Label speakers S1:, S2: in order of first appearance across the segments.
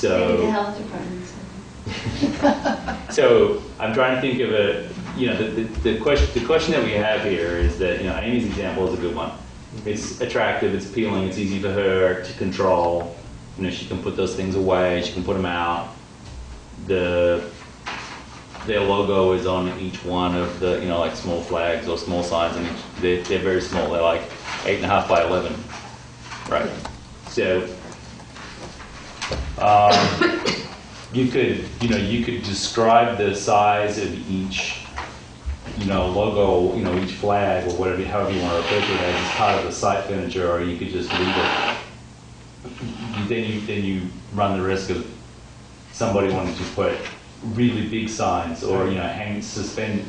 S1: Maybe the
S2: So,
S1: health department.
S2: so I'm trying to think of a, you know, the, the, the question, the question that we have here is that, you know, Amy's example is a good one. It's attractive, it's appealing, it's easy for her to control. You know, she can put those things away, she can put them out. The, their logo is on each one of the, you know, like small flags or small signs and each- they're, they're very small, they're like eight and a half by 11. Right. So, um, you could, you know, you could describe the size of each, you know, logo, you know, each flag or whatever, however you want to refer to it as, as part of the site furniture, or you could just leave it. You- Then you, then you run the risk of somebody wanting to put really big signs or, you know, hang, suspend,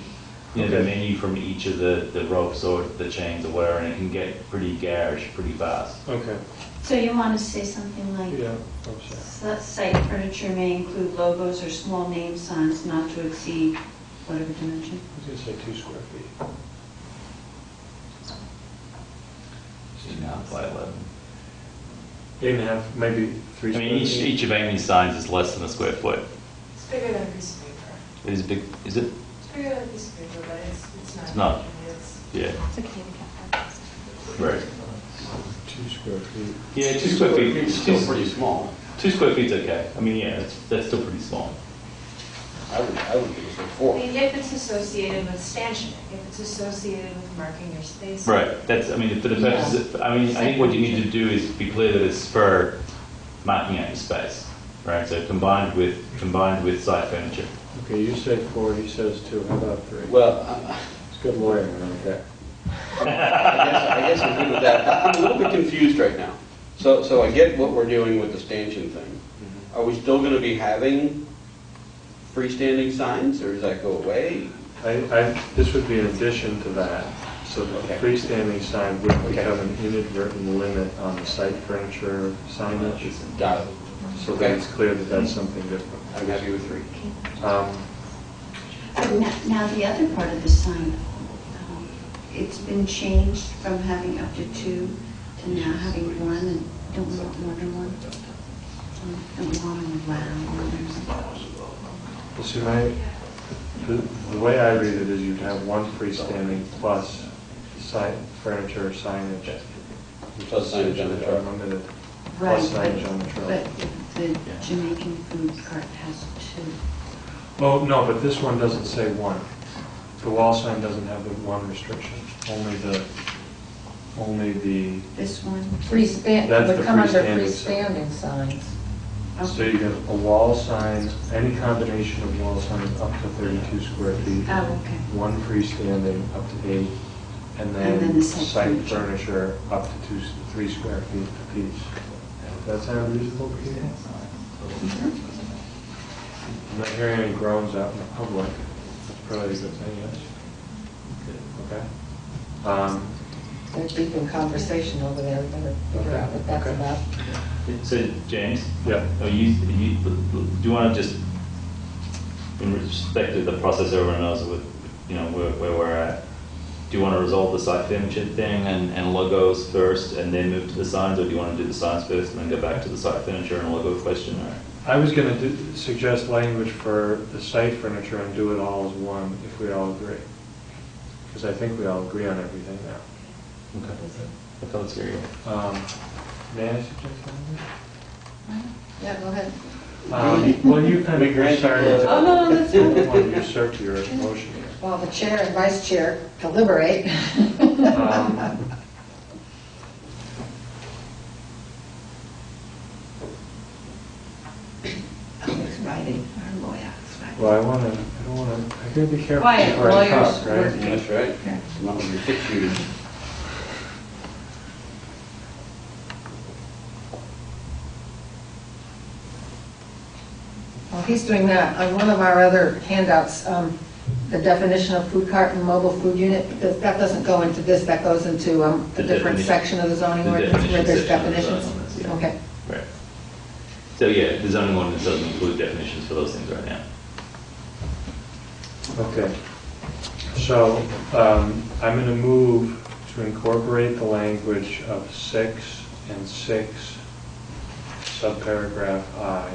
S2: you know, the
S3: Okay.
S2: menu from each of the, the ropes or the chains or whatever, and it can get pretty garish pretty fast.
S3: Okay,
S1: So you want to say something like,
S3: yeah, I'm sorry.
S1: "S- uh, site furniture may include logos or small name signs not to exceed whatever dimension?
S3: I was gonna say two square feet.
S2: Eight and a half by 11.
S3: Eight and a half, maybe
S2: I
S3: three.
S2: mean, each,
S3: square feet.
S2: each of Amy's signs is less than a square foot.
S4: It's bigger than a piece of paper.
S2: It is big, is it?
S4: It's bigger than a piece of paper, but it's, it's not.
S2: It's not.
S4: It's-
S2: Yeah.
S5: It's like a handicap.
S2: Right.
S3: Two square feet.
S2: Yeah, two square feet.
S6: It's
S2: two-
S6: still pretty small.
S2: Two square feet's okay. I mean, yeah, that's, that's still pretty small.
S6: I would, I would give it a
S4: I
S6: four.
S4: mean, if it's associated with stanchioning, if it's associated with marking your space.
S2: Right, that's, I mean, for the purposes, of- I mean, I think what you need to do is be clear that it's for marking out your space, right? So combined with, combined with site furniture.
S3: Okay, you say four, he says two, how about three?
S6: Well, I-
S3: It's good lawyering, okay?
S6: I guess, I guess I agree with that. I- I'm a little bit confused right now. So, so I get what we're doing with the stanchion thing.
S2: Mm-hmm.
S6: Are we still gonna be having freestanding signs, or does that go away?
S3: I, I, this would be an addition to that, so that the
S6: Okay.
S3: freestanding sign would
S6: Okay.
S3: become an inadvertent limit on the site furniture signage,
S6: Got it.
S3: so that
S6: Okay.
S3: it's clear that that's something different.
S6: I'm happy with three.
S3: Um,
S1: Now, now the other part of the sign, um, it's been changed from having up to two to now having one, and don't we want more than one? Um, Don't we want them loud?
S3: you See, my, the, the way I read it is you'd have one freestanding plus sign, furniture signage.
S6: Plus signage on the
S3: Which
S6: truck.
S3: are Limited.
S1: Right,
S3: Plus signage on the
S1: but-
S3: truck.
S1: But the Jamaican food cart has two.
S3: Oh, no, but this one doesn't say one. The wall sign doesn't have the one restriction, only the, only the,
S1: This one,
S3: That's
S7: Freestand,
S3: the
S7: would come under
S3: freestanding sign.
S7: freestanding signs.
S3: so you have a wall sign, any combination of wall signs up to 32 square feet,
S1: oh, okay.
S3: one freestanding up to eight, and
S1: And then the
S3: then
S1: site
S3: site
S1: furniture.
S3: furniture up to two, three square feet apiece. Does that sound reasonable, Peter? I'm not hearing any groans out in the public. That's probably a good thing, yes? Okay. Um,
S7: They're deep in conversation over there, we better figure out what that's
S3: Okay, okay.
S7: about.
S2: So, James?
S3: Yeah.
S2: Are you, are you, do you want to just, in respect of the process everyone knows with, you know, where, where we're at, do you want to resolve the site furniture thing and, and logos first and then move to the signs, or do you want to do the signs first and then go back to the site furniture and logo question, or?
S3: I was going to suggest language for the site furniture and do it all as one, if we all agree. Because I think we all agree on everything now.
S2: Okay. I thought it's very.
S3: Um, May I suggest language?
S7: Yeah, go ahead.
S3: Um, Well, you kind
S6: We
S3: of, you're
S6: grant
S3: sorry.
S6: you-
S7: Oh, no, no, that's
S3: I
S7: fine.
S3: don't want to usurp your motion here.
S7: While the chair and vice chair deliberate.
S3: Um,
S1: Alex Riley, our lawyer, Alex Riley.
S3: Well, I want to, I don't want to, I gotta be careful
S1: Quiet,
S3: before I
S1: lawyers
S3: talk,
S1: work.
S3: right?
S6: That's right. Not with your six shooters.
S7: While he's doing that, on one of our other handouts, um, the definition of food cart and mobile food unit, because that doesn't go into this, that goes into um, a
S2: The
S7: different
S2: definition.
S7: section of the zoning
S2: The
S7: ordinance where there's
S2: definition
S7: definitions.
S2: of the zoning ordinance, yeah.
S7: Okay.
S2: Right. So, yeah, the zoning ordinance doesn't include definitions for those things right now.
S3: Okay. So um, I'm going to move to incorporate the language of six and six, subparagraph I,